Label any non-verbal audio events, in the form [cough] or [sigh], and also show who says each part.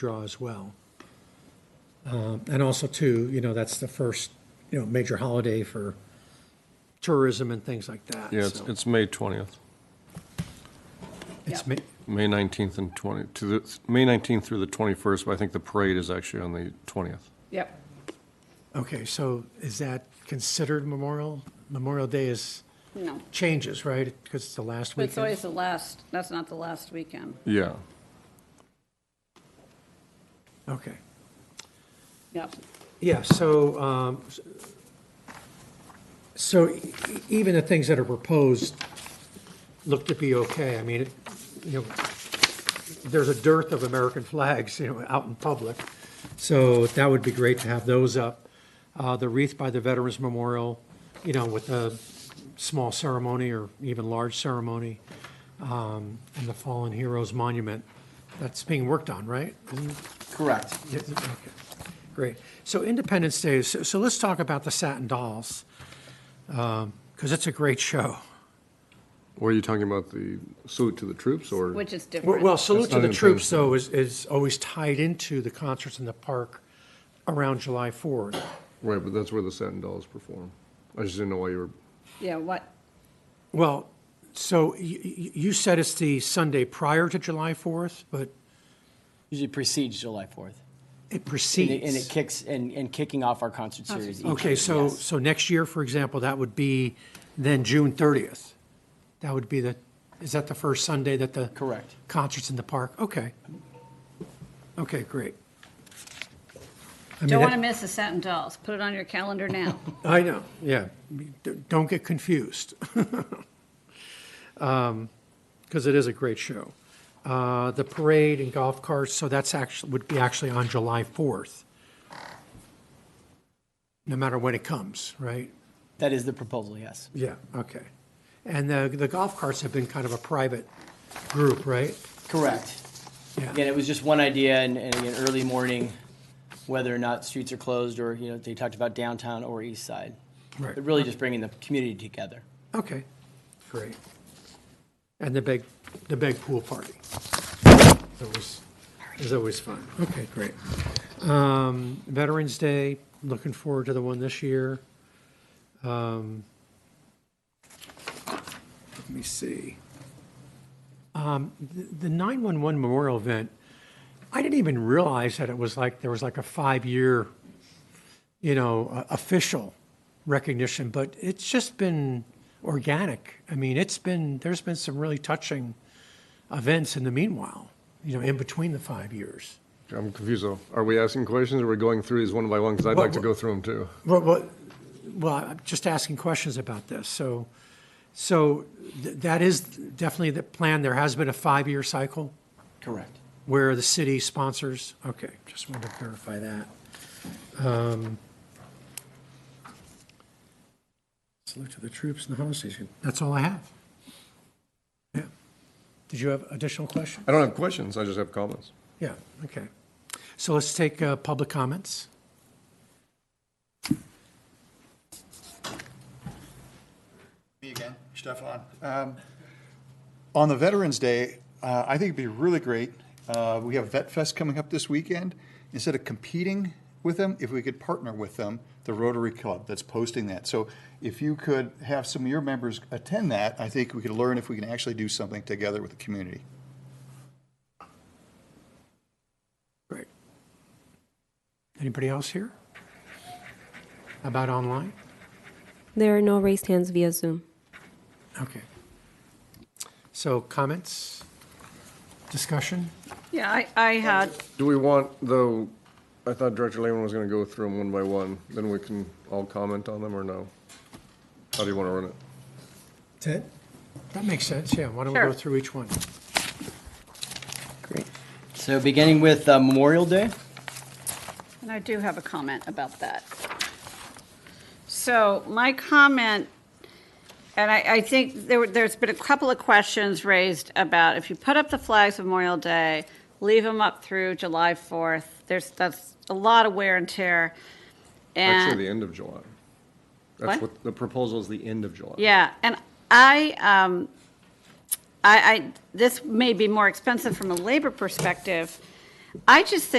Speaker 1: draw as well. Um, And also too, you know, that's the first, you know, major holiday for tourism and things like that.
Speaker 2: Yeah, it's,
Speaker 1: so
Speaker 2: it's May 20th,
Speaker 1: It's, ma-
Speaker 2: May 19th and 20, to the, May 19th through the 21st, but I think the parade is actually on the 20th.
Speaker 3: Yep.
Speaker 1: okay, so is that considered Memorial? Memorial Day is,
Speaker 3: No.
Speaker 1: changes, right? Because it's the last
Speaker 3: But it's always
Speaker 1: weekend.
Speaker 3: the last, that's not the last weekend.
Speaker 2: Yeah,
Speaker 1: Okay.
Speaker 3: Yep.
Speaker 1: Yeah, so, um, so e- even the things that are proposed look to be okay. I mean, it- you know, there's a dearth of American flags, you know, out in public. So that would be great to have those up. Uh, The wreath by the Veterans Memorial, you know, with a small ceremony or even large ceremony. um, And the Fallen Heroes Monument, that's being worked on, right? Isn't-
Speaker 4: Correct.
Speaker 1: yeah, okay. Great. So Independence Day, so, so let's talk about the Satin Dolls, because it's a great show.
Speaker 2: were you talking about the salute to the troops, or?
Speaker 3: Which is
Speaker 1: Well,
Speaker 3: different.
Speaker 1: well, Salute
Speaker 2: That's
Speaker 1: to
Speaker 2: not
Speaker 1: the Troops,
Speaker 2: Independence
Speaker 1: though, is, is always tied into the concerts in the park around July 4th.
Speaker 2: Right, but that's where the Satin Dolls perform. I just didn't know why you were,
Speaker 3: Yeah, what,
Speaker 1: Well, so you, you said it's the Sunday prior to July 4th, but
Speaker 4: Usually precedes July 4th.
Speaker 1: it
Speaker 4: And it, and it
Speaker 1: precedes.
Speaker 4: kicks, and, and kicking off our concert series. each
Speaker 1: Okay,
Speaker 4: year,
Speaker 1: so,
Speaker 4: yes.
Speaker 1: so next year, for example, that would be then June 30th. That would be the, is that the first Sunday that the?
Speaker 4: Correct.
Speaker 1: concerts in the park, okay. Okay, great. I mean,
Speaker 3: don't want to
Speaker 1: that-
Speaker 3: miss the Satin Dolls. Put it on your calendar
Speaker 1: [laughs]
Speaker 3: now.
Speaker 1: I know, yeah, D- don't get confused. [laughs] Because it is a great show. Uh, The parade and golf carts, so that's actually, would be actually on July 4th. No matter when it comes, right?
Speaker 4: That is the proposal, yes.
Speaker 1: Yeah, okay. And the, the golf carts have been kind of a private group, right?
Speaker 4: Correct.
Speaker 1: Yeah.
Speaker 4: Again, it was just one idea, and, and again, early morning, whether or not streets are closed, or, you know, they talked about downtown or east side.
Speaker 1: Right.
Speaker 4: But really just bringing the community together.
Speaker 1: Okay, great. And the big, the big pool party. That was, is always fun. Okay, great. Um, Veterans Day, looking forward to the one this year. Um, Let me see. Um, The the 911 Memorial Event, I didn't even realize that it was like, there was like a five-year, you know, o- official recognition, but it's just been organic. I mean, it's been, there's been some really touching events in the meanwhile, you know, in between the five years.
Speaker 2: I'm confused though. Are we asking questions, or we are going through these one by one? Because I'd like to go through them too.
Speaker 1: Well, well, well, I'm just asking questions about this. So, so th- that is definitely the plan. There has been a five-year cycle
Speaker 4: Correct.
Speaker 1: where the city sponsors. Okay, just wanted to verify that. Um, Salute to the troops and the hostages. That's all I have. Yeah. Did you have additional questions?
Speaker 2: I don't have questions, I just have comments.
Speaker 1: Yeah, okay. So let's take uh, public comments.
Speaker 5: Me again, Stefan. Um, On the Veterans Day, uh, I think it'd be really great, uh, we have Vet Fest coming up this weekend. Instead of competing with them, if we could partner with them, the Rotary Club that's posting that. So if you could have some of your members attend that, I think we could learn if we can actually do something together with the community.
Speaker 1: Great. Anybody else here? How About online?
Speaker 6: There are no raised hands via Zoom.
Speaker 1: Okay. So comments? Discussion?
Speaker 3: Yeah, I, I had,
Speaker 2: Do we want, though, I thought Director Lehman was going to go through them one by one, then we can all comment on them, or no? How do you want to run it?
Speaker 1: Ted? That makes sense, yeah. Why don't we go
Speaker 3: Sure.
Speaker 1: through each one?
Speaker 4: Great. So beginning with uh, Memorial Day,
Speaker 3: and I do have a comment about that. So my comment, and I, I think there, were- there's been a couple of questions raised about if you put up the flags Memorial Day, leave them up through July 4th, there's, that's a lot of wear and tear. And-
Speaker 2: Actually, the end of July. That's
Speaker 3: Eh. What?
Speaker 2: what, the proposal is the end of July.
Speaker 3: Yeah, and I, um, I, I, this may be more expensive from a labor perspective, I just think